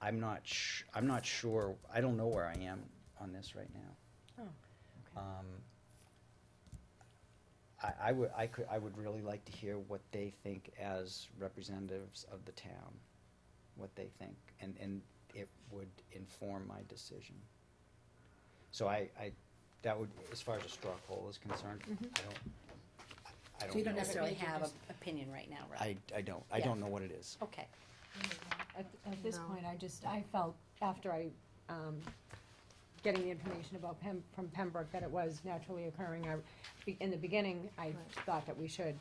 I'm not sh- I'm not sure, I don't know where I am on this right now. Oh, Um, I, I would, I could, I would really like to hear what they think as representatives of the town, what they think, and, and it would inform my decision. So I, I, that would, as far as a straw poll is concerned, I don't, I don't So you don't know. necessarily Maybe have an just- opinion right now, right? I, I don't, I Yeah. don't know what it is. Okay, At, at this No. point, I just, I felt after I, um, getting the information about Pem, from Pembroke that it was naturally occurring, I, be- in the beginning, I Right. thought that we should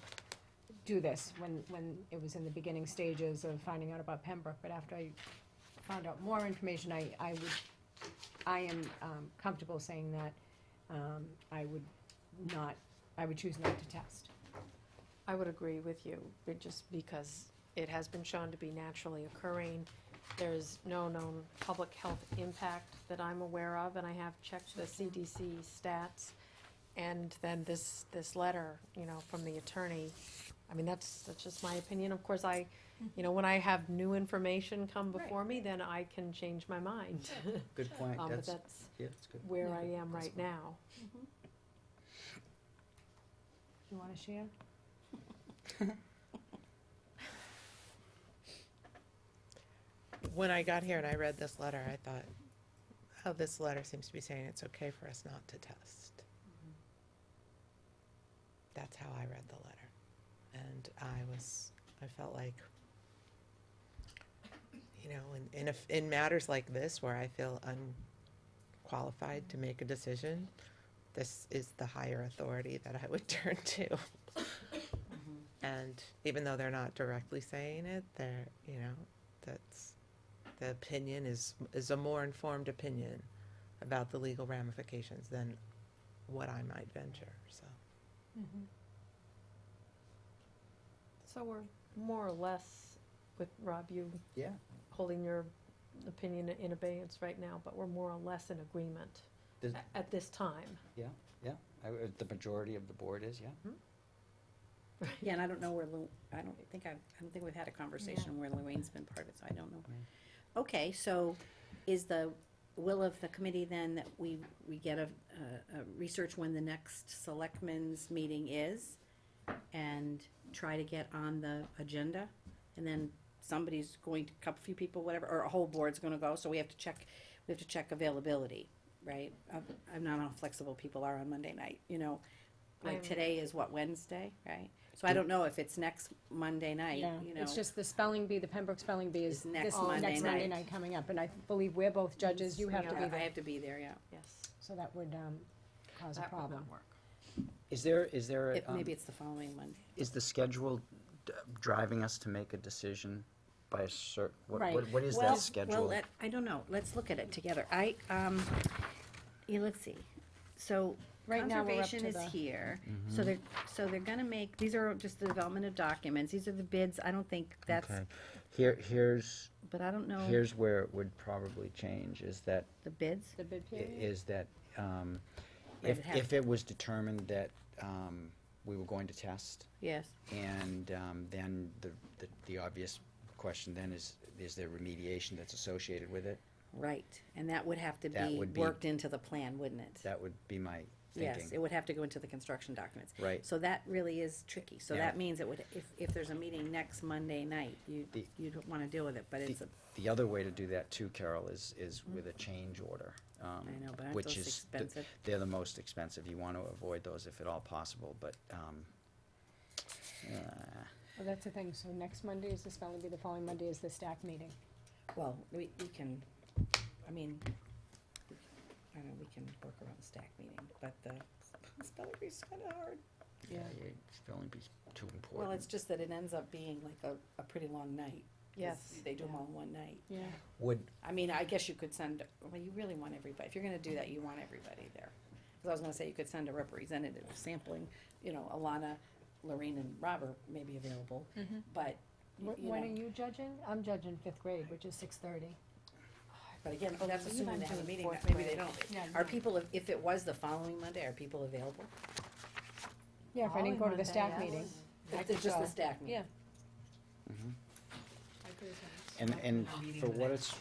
do this when, when it was in the beginning stages of finding out about Pembroke, but after I found out more information, I, I would, I am, um, comfortable saying that, um, I would not, I would choose not to test. I would agree with you, but just because it has been shown to be naturally occurring. There's no known public health impact that I'm aware of, and I have checked the CDC stats. And then this, this letter, you know, from the attorney, I mean, that's, that's just my opinion. Of course, I, you know, when I have new information come Mm-hmm. Right. before me, then I can change my mind. Good point, Um, but that's, that's yeah, that's good. where Yeah. I am right now. Do you wanna share? when I got here and I read this letter, I thought, oh, this letter seems to be saying it's okay for us not to test. That's how I read the letter. And I was, I felt like, you know, in, in, if in matters like this where I feel unqualified to make a decision, this is the higher authority that I would turn to. Mm-hmm. And even though they're not directly saying it, they're, you know, that's, the opinion is, is a more informed opinion about the legal ramifications than what I might venture, so. Mm-hmm. So we're more or less with Rob, you Yeah, holding your opinion in abeyance right now, but we're more or less in agreement Does- a- at this time. I, uh, the majority of the board is, yeah. yeah, and I don't know where Lou, I don't think I, I don't think we've had a conversation where Luanne's been part of it, so I don't know. Okay, so is the will of the committee then that we, we get a, a, a research when the next selectmen's meeting is? And try to get on the agenda, and then somebody's going to, a couple few people, whatever, or a whole board's gonna go, so we have to check, we have to check availability, right? I'm- I'm not how flexible people are on Monday night, you know, like I'm- today is what, Wednesday, right? So I don't know if it's next Monday night, Yeah, you know. it's just the spelling bee, the Pembroke spelling bee is Is next this Monday next Monday night. night coming up, and I believe we're both judges, you have to Yeah, be I there, have to be there, yeah. Yes. so that would, um, cause a problem. Is there, is there, a, If- um, Maybe it's the following Monday. is the schedule d- driving us to make a decision by a certain? Right. what, what is Well, that schedule? Well, let- I don't know, let's look at it together. I, um, yeah, let's see. So Right now, we're up conservation to is the- here, so they're, so they're gonna make, these are just the development of documents, these are the bids, I don't think that's, Okay. Here, here's, but I don't know, here's where it would probably change, is that, the bids? The bid i- period? is that, um, Right, if, it has- if it was determined that, um, we were going to test, Yes. and, um, then the, the, the obvious question then is, is there remediation that's associated with it? Right, and that would have to That be would be- worked into the plan, wouldn't it? That would be my thinking. Yes, it would have to go into the construction documents. Right. So that really is tricky, so Yeah. that means it would, if, if there's a meeting next Monday night, you, The- you'd wanna deal with it, but it's a, Mm-hmm. The other way to do that too, Carol, is, is with a change order. um, I know, but aren't which those is the- expensive? They're the most expensive. You want to avoid those if at all possible, but, um, uh, Well, that's the thing, so next Monday is the spelling bee, the following Monday is the staff meeting. Well, we, we can, I mean, I don't know, we can work around the stack meeting, but the spelling bee's kinda hard. yeah, your spelling bee's too important. Well, it's just that it ends up being like a, a pretty long night. 'cause Yes. They do them all in one night. Yeah. Would, I mean, I guess you could send, well, you really want everybody, if you're gonna do that, you want everybody there. Cause I was gonna say, you could send a representative sampling, you know, Alana, Lorraine and Robert may be available, Mm-hmm. but, y- you When are know, you judging? I'm judging fifth grade, which is six thirty. but again, I that's believe assuming I'm they have a doing meeting, fourth maybe they grade. don't. Yeah, Are people, av- if it was the following Monday, are people available? Yeah, if I didn't go to the staff meeting. I It's just could the go. staff meeting. Yeah. and, and for what it's